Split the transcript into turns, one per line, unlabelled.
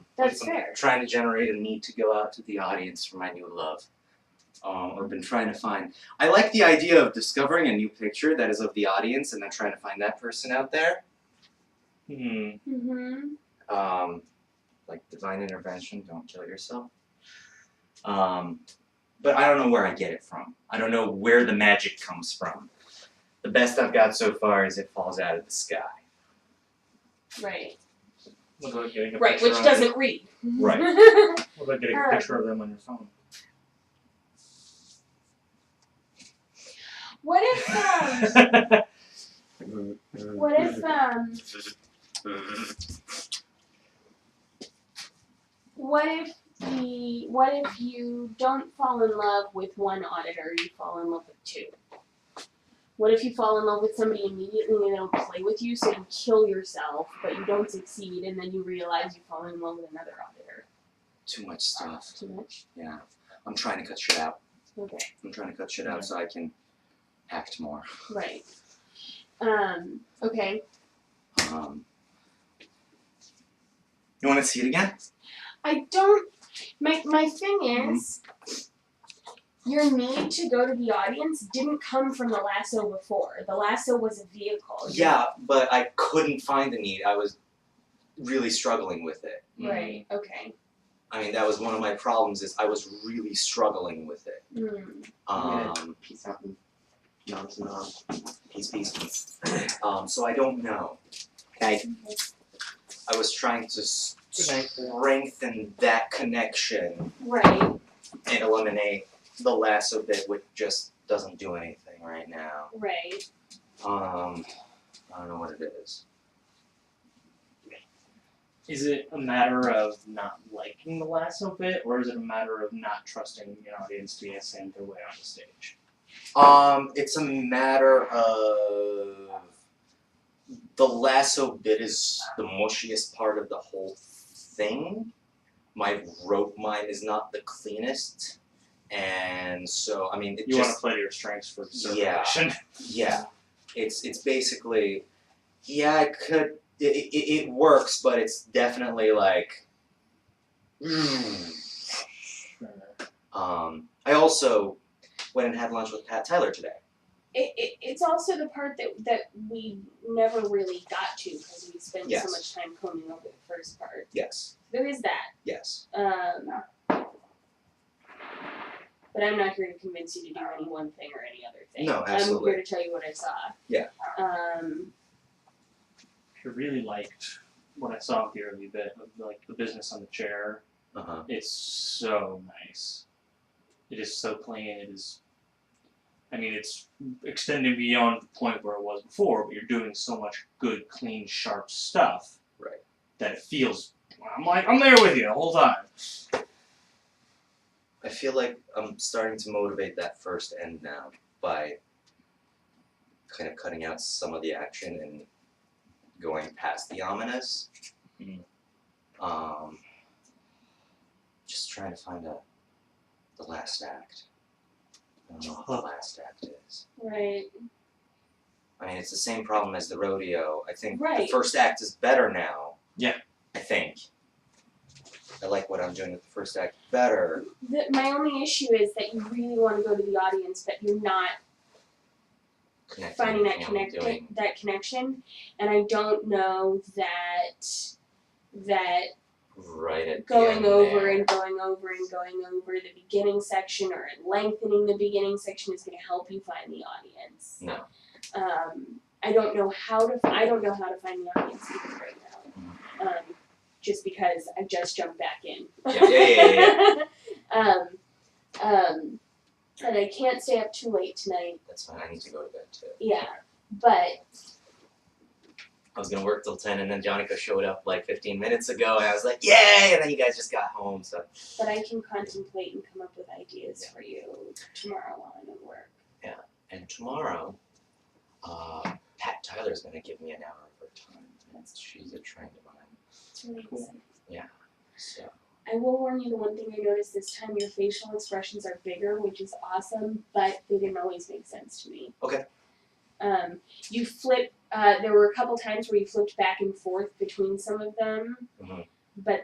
That's
I'm
fair.
Trying to generate a need to go out to the audience for my new love. Um, I've been trying to find. I like the idea of discovering a new picture that is of the audience and then trying to find that person out there. Hmm.
Mm-hmm.
um, like divine intervention, don't kill yourself. Um, but I don't know where I get it from. I don't know where the magic comes from. The best I've got so far is it falls out of the sky.
Right.
What about getting a
Right,
picture
which
on-
doesn't read.
Right.
What about getting a
Alright.
picture of them on your phone?
what if um what if um what if the what if you don't fall in love with one auditor, you fall in love with two? What if you fall in love with somebody immediately and they don't play with you, so you kill yourself, but you don't succeed, and then you realize you fall in love with another auditor?
Too much stuff.
Too much?
Yeah. I'm trying to cut shit out.
Okay.
I'm trying to cut shit out so I can act more.
Right. Um, okay.
Um, you want to see it again?
I don't my my thing
Mm-hmm.
is your need to go to the audience didn't come from the lasso before. The lasso was a vehicle.
Oh, Yeah, but I couldn't find the need. I was really struggling with it.
Right. Okay.
I mean, that was one of my problems is I was really struggling with it.
Mm.
Um,
Peace out.
no, it's not. He's beast. Um, so I don't know. Okay. I was trying to s- strengthen that connection
Right.
and eliminate the lasso bit, which just doesn't do anything right now.
Right.
Um, I don't know what it is.
Is it a matter of not liking the lasso bit, or is it a matter of not trusting an audience to be send their way on the stage?
Um, it's a matter of the lasso bit is the mushiest part of the whole thing. My rope mine is not the cleanest, and so I mean, it
You want
just
to play to your strengths for
Yeah.
circulation.
yeah, it's it's basically yeah, it could it, it, it works, but it's definitely like. 음. hmm. Um, I also went and had lunch with Pat Tyler today.
It, it, it's also the part that that we never really got to because we spent
Yes.
so much time combing over the first part.
Yes,
There is that.
yes.
Um, but I'm not here to convince you to do any one thing or any other thing.
No,
I'm
absolutely.
here to tell you what I saw.
Yeah.
Um,
I really liked what I saw with the early bit of like the business on the chair.
Uh-huh.
It's so nice. It is so clean. It is. I mean, it's extending beyond the point where it was before, but you're doing so much good, clean, sharp stuff.
Right.
That it feels. I'm like, I'm there with you the whole time.
I feel like I'm starting to motivate that first end now by kind of cutting out some of the action and going past the ominous. Mm-hmm.
Mhm.
Um, just trying to find out the last act. I don't know what the last act is.
right.
I mean, it's the same problem as the rodeo. I think the
Right.
first act is better now.
Yeah.
I think. I like what I'm doing with the first act better.
The, my only issue is that you really want to go to the audience, but you're not
Connecting
finding that
and
connect
doing
that connection. And I don't know that that
right at the
going
end
over
there.
and going over and going over the beginning section or lengthening the beginning section is going to help you find the audience.
No.
Um, I don't know how to. I don't know how to find the audience either right now. Um, just because I just jumped back in.
Yeah, yeah, yeah, yeah,
um, um, and I can't stay up too late tonight.
That's fine. I need to go to bed too.
Yeah, but
I was gonna work till ten, and then Jonico showed up like fifteen minutes ago, and I was like, "Yay!" And then you guys just got home, so
but I can contemplate and come up with ideas for you tomorrow while I'm at work.
and tomorrow, uh, Pat Tyler's gonna give me an hour of her time. That's she's a trained mind,
It's really
Cool.
exciting.
so
I will warn you, the one thing I noticed this time, your facial expressions are bigger, which is awesome, but they didn't always make sense to me.
Okay.
Um, you flip, uh, there were a couple times where you flipped back and forth between some of them,
Mhm.
but